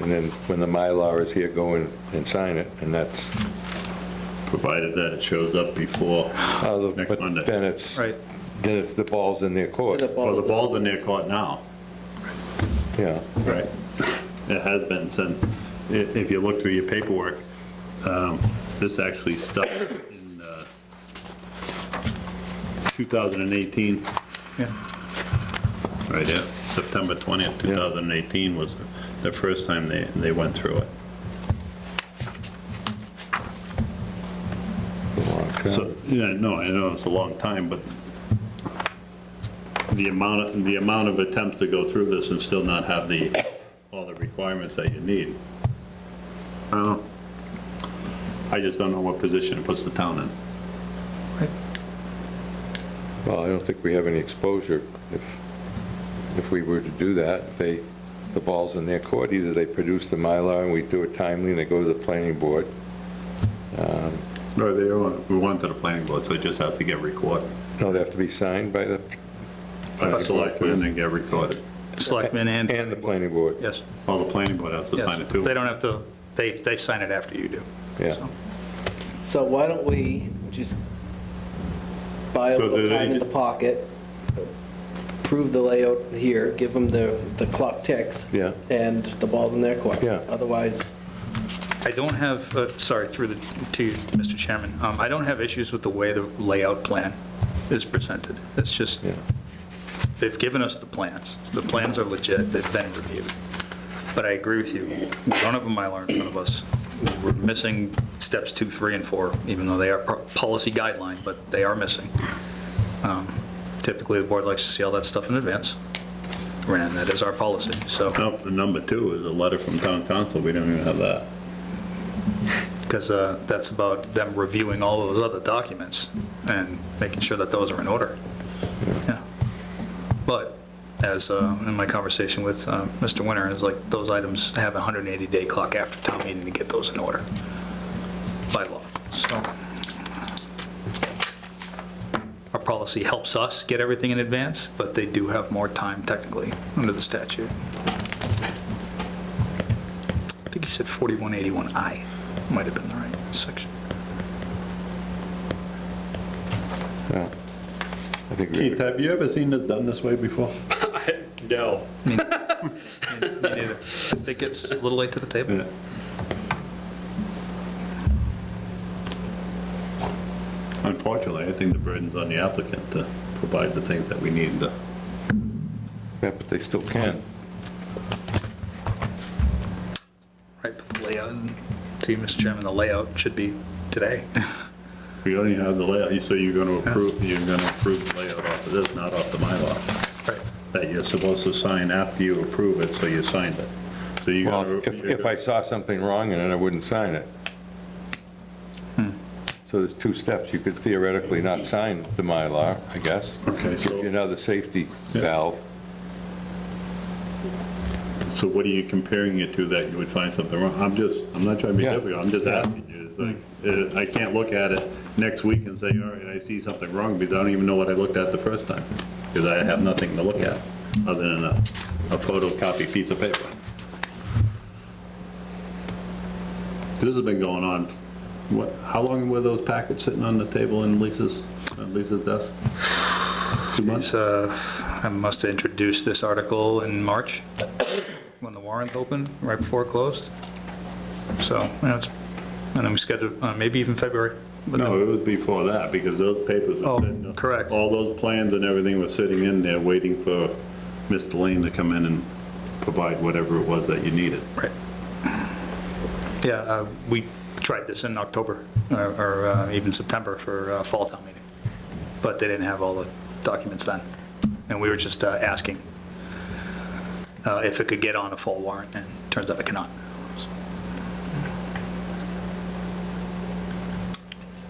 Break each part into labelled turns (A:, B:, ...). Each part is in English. A: and then when the Mylar is here, go in and sign it, and that's,
B: provided that it shows up before,
A: uh,
B: Next
A: but
B: Monday.
A: then it's,
C: Right.
A: then it's the ball's in their court,
B: well, the ball's in their court now,
A: yeah.
B: right? It has been since, i- if you look through your paperwork, um, this actually stuck in uh, 2018.
C: Yeah.
B: Right, yeah, September 20th, 2018 was the first time they, they went through it. So, yeah, no, I know it's a long time, but the amount, of- the amount of attempts to go through this and still not have the, all the requirements that you need. I don't know. I just don't know what position it puts the town in.
A: Well, I don't think we have any exposure if, if we were to do that. They, the ball's in their court, either they produce the Mylar and we do it timely and they go to the planning board.
B: No, they want. We went to the planning board, so it just has to get recorded.
A: No, they have to be signed by the,
B: By the selectmen and then get recorded.
C: Selectmen and,
A: and the planning board,
C: yes,
B: Well, the planning board has to sign
C: yes.
B: it too.
C: They don't have to, they, they sign it after you do.
A: yeah.
C: So,
D: So why don't we just buy a
B: So
D: little
B: do they-
D: time in the pocket, prove the layout here, give them the, the clock ticks.
A: Yeah.
D: And the ball's in their court.
A: Yeah.
D: Otherwise,
C: I don't have, uh, sorry, through the, to you, Mr. Chairman, Um, I don't have issues with the way the layout plan is presented. It's just,
A: Yeah.
C: they've given us the plans. The plans are legit, they've been reviewed. But I agree with you, we don't have a Mylar in front of us. We're missing steps two, three, and four, even though they are pro- policy guideline, but they are missing. Um, Typically, the board likes to see all that stuff in advance, and that is our policy, so.
B: No, the number two is a letter from town council. We don't even have that.
C: because uh, that's about them reviewing all those other documents and making sure that those are in order. Yeah. But as uh, in my conversation with uh, Mr. Winter, it's like those items have a 180-day clock after town meeting to get those in order by law. So our policy helps us get everything in advance, but they do have more time technically under the statute. I think he said 4181I, might have been the right section.
A: yeah. I think we,
B: Keith, have you ever seen this done this way before?
E: No.
C: I think it's a little late to the table.
B: Yeah. Unfortunately, I think the burden's on the applicant to provide the things that we need to.
A: yeah, but they still can.
C: Right, but the layout, and- to you, Mr. Chairman, the layout should be today.
B: We only have the layout, so you're gonna approve, you're gonna approve the layout off of this, not off the Mylar.
C: Right.
B: That you're supposed to sign after you approve it, so you signed it. So you're
A: Well,
B: gonna.
A: if, if I saw something wrong in it, I wouldn't sign it. So there's two steps. You could theoretically not sign the Mylar, I guess.
B: Okay,
A: Give you
B: so,
A: another safety
B: Yeah.
A: valve.
B: so what are you comparing it to that you would find something wrong? I'm just, I'm not trying to be
A: Yeah.
B: difficult, I'm just asking you, it's like, uh, I can't look at it next week and say, all right, I see something wrong, because I don't even know what I looked at the first time, because I have nothing to look at, other than a, a photocopy piece of paper. This has been going on, what, how long were those packets sitting on the table in Lisa's, on Lisa's desk? Two months?
C: So I must have introduced this article in March, when the warrant opened, right before it closed. So, you know, it's- and then we scheduled, uh, maybe even February. but
B: No,
C: then-
B: it was before that, because those papers were
C: Oh,
B: sitting.
C: correct.
B: All those plans and everything was sitting in there, waiting for Mr. Lane to come in and provide whatever it was that you needed.
C: Right. Yeah, uh, we tried this in October, or- or uh, even September for uh, Fall Town Meeting, but they didn't have all the documents then, and we were just uh, asking uh, if it could get on a full warrant, and turns out it cannot.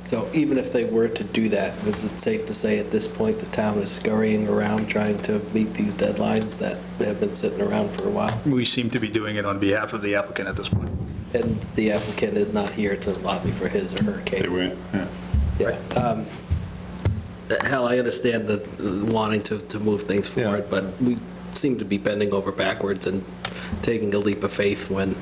D: so even if they were to do that, is it safe to say at this point the town is scurrying around trying to meet these deadlines that have been sitting around for a while?
C: We seem to be doing it on behalf of the applicant at this point.
D: And the applicant is not here to lobby for his or her case.
B: They were, yeah.
D: Yeah. um, Hell, I understand the uh, wanting to, to move things
A: Yeah.
D: forward, but we seem to be bending over backwards and taking a leap of faith when